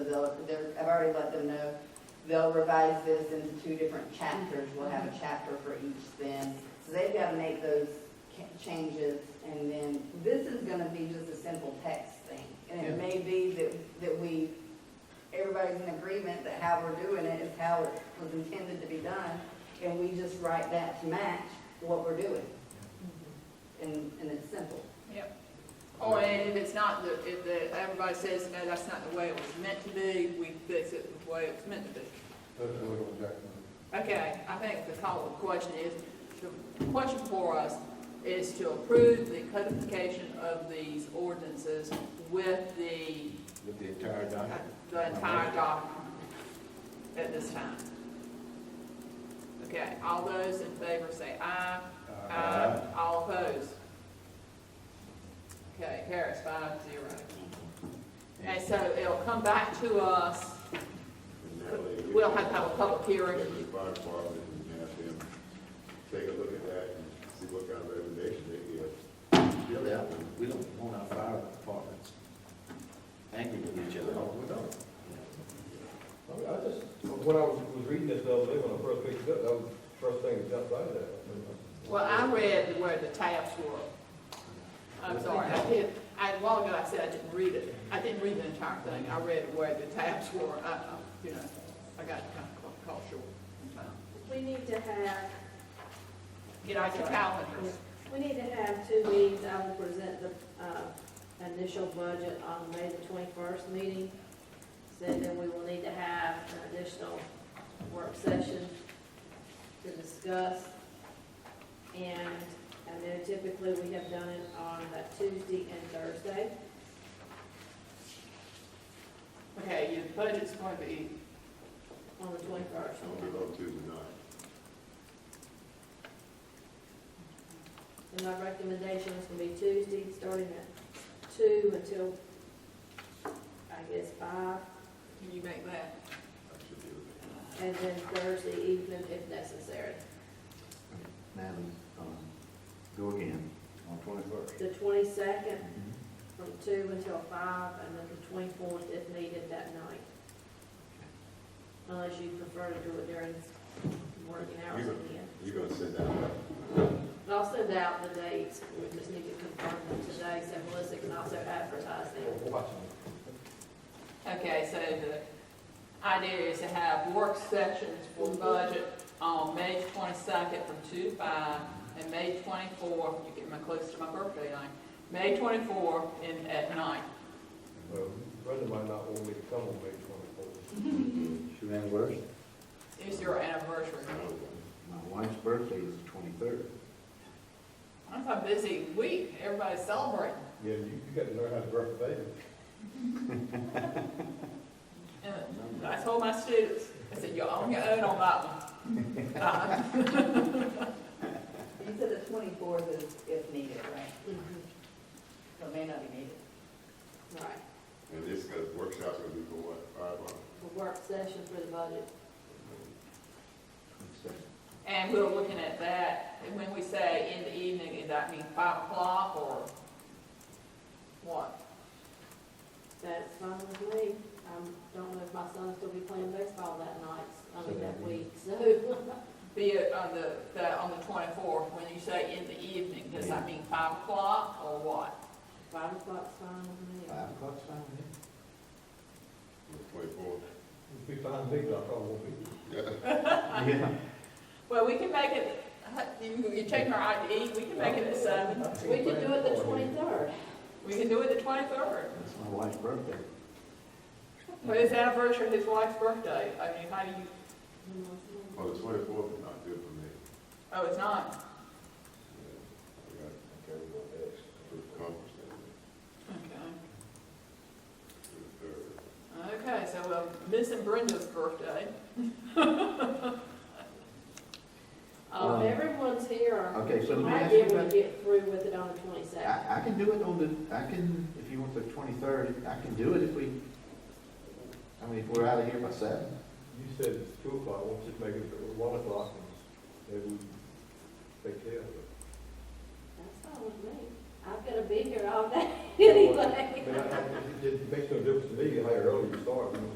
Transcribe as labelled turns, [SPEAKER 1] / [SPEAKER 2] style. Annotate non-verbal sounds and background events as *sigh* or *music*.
[SPEAKER 1] already let them know, they'll revise this into two different chapters, we'll have a chapter for each then. So they've got to make those ca- changes, and then this is gonna be just a simple text thing. And it
[SPEAKER 2] Yeah.
[SPEAKER 1] may be that, that we, everybody's in agreement that how we're doing it is how it was intended to be done, and we just write that to match what we're doing. And, and it's simple.
[SPEAKER 3] Yep. Or, and if it's not the, if the, everybody says, no, that's not the way it was meant to be, we fix it the way it was meant to be.
[SPEAKER 2] That's what I'm talking
[SPEAKER 3] Okay, I think the call, the question is, the question for us is to approve the codification of these ordinances with the,
[SPEAKER 2] about,
[SPEAKER 3] uh,
[SPEAKER 2] with the entire document.
[SPEAKER 3] the entire document at this time. Okay, all those in favor say aye. Aye.
[SPEAKER 4] Uh,
[SPEAKER 3] Uh, All opposed? Okay, carries five zero. And so it'll come back to us, we'll have to have a public
[SPEAKER 5] Take
[SPEAKER 3] hearing.
[SPEAKER 5] the fire department and have them take a look at that and see what kind of recommendation they give.
[SPEAKER 2] Really, I, we don't want our fire departments angry with each other.
[SPEAKER 6] No, we don't. I mean, I just, when I was, was reading this the other day, when I first picked it up, that was the first thing that jumped out of that.
[SPEAKER 3] Well, I read where the tabs were. I'm sorry, I did, I, a while ago I said I didn't read it. I didn't read the entire thing. I read where the tabs were, I, I, you know, I got kind of caught short in time.
[SPEAKER 7] We need to have,
[SPEAKER 3] Get out your calendars.
[SPEAKER 7] we need to have two meetings, I will present the, uh, initial budget on May the twenty-first meeting. So then we will need to have an additional work session to discuss. And, and then typically we have done it on that Tuesday and Thursday.
[SPEAKER 3] Okay, your budget's going to be,
[SPEAKER 7] On the twenty-first.
[SPEAKER 5] I'll be on Tuesday night.
[SPEAKER 7] And my recommendation is gonna be Tuesday, starting at two until, I guess, five,
[SPEAKER 3] can you make that?
[SPEAKER 5] I should be able to.
[SPEAKER 7] and then Thursday evening if necessary.
[SPEAKER 4] Madam, um, go again on twenty-first.
[SPEAKER 7] The twenty-second from two until five, and then the twenty-fourth if needed that night. Unless you prefer to do it during working hours
[SPEAKER 5] You-
[SPEAKER 7] again.
[SPEAKER 5] You're gonna send out, a-
[SPEAKER 7] But I'll send out the dates, we just need to confirm them today, so Melissa can also advertise them.
[SPEAKER 3] Okay, so the idea is to have work sessions for budget on May twenty-second from two to five, and May twenty-four, you get my close to my birthday night, May twenty-four in, at night.
[SPEAKER 6] Well, Brenda might not want me to come on May twenty-fourth.
[SPEAKER 4] Your anniversary,
[SPEAKER 3] It's your anniversary.
[SPEAKER 4] my wife's birthday is the twenty-third.
[SPEAKER 3] That's a busy week, everybody's celebrating.
[SPEAKER 6] Yeah, you, you got to learn how to birth a baby.
[SPEAKER 3] And I told my students, I said, you're on your own on that one. Uh,
[SPEAKER 1] You said the twenty-fourth is if needed, right?
[SPEAKER 7] Mhm,
[SPEAKER 1] So it may not be needed.
[SPEAKER 7] Right.
[SPEAKER 5] and this uh, workshop's gonna be for what, five hours?
[SPEAKER 7] a work session for the budget.
[SPEAKER 3] And we're looking at that, and when we say in the evening, does that mean five o'clock or what?
[SPEAKER 7] That's fine with me. I don't know if my son's gonna be playing baseball that night, I mean, that week, so. *laughs*
[SPEAKER 3] Be it on the, the, on the twenty-fourth, when you say in the evening, does that mean five o'clock or what?
[SPEAKER 7] Five o'clock's fine with me.
[SPEAKER 4] Five o'clock, sound good?
[SPEAKER 5] Twenty-four?
[SPEAKER 6] If we find me, I probably won't be.
[SPEAKER 4] Yeah.
[SPEAKER 3] Well, we can make it, you, you check our ID, we can make it at seven,
[SPEAKER 7] We could do it the twenty-third.
[SPEAKER 3] we can do it the twenty-third.
[SPEAKER 4] That's my wife's birthday.
[SPEAKER 3] But it's anniversary of his wife's birthday, I mean, how do you,
[SPEAKER 5] Well, Oh, the twenty-fourth is not good for me.
[SPEAKER 3] oh, it's not?
[SPEAKER 5] I got a conference that
[SPEAKER 3] Okay,
[SPEAKER 5] day, the third.
[SPEAKER 3] okay, so we're missing Brenda's birthday.
[SPEAKER 7] Um, everyone's here.
[SPEAKER 4] Okay, so let me
[SPEAKER 7] Might
[SPEAKER 4] ask
[SPEAKER 7] be
[SPEAKER 4] you
[SPEAKER 7] able to
[SPEAKER 4] about,
[SPEAKER 7] get through with it on the twenty-second.
[SPEAKER 4] I, I can do it on the, I can, if you want the twenty-third, I can do it if we, I mean, if we're out of here by seven.
[SPEAKER 6] You said it's two o'clock, won't you make it one o'clock and maybe we take care of it?
[SPEAKER 7] That's fine with me. I'm gonna be here all day
[SPEAKER 6] I
[SPEAKER 7] *laughs* anyway.
[SPEAKER 6] mean, I- I- It it makes no difference to me how early you start, you know.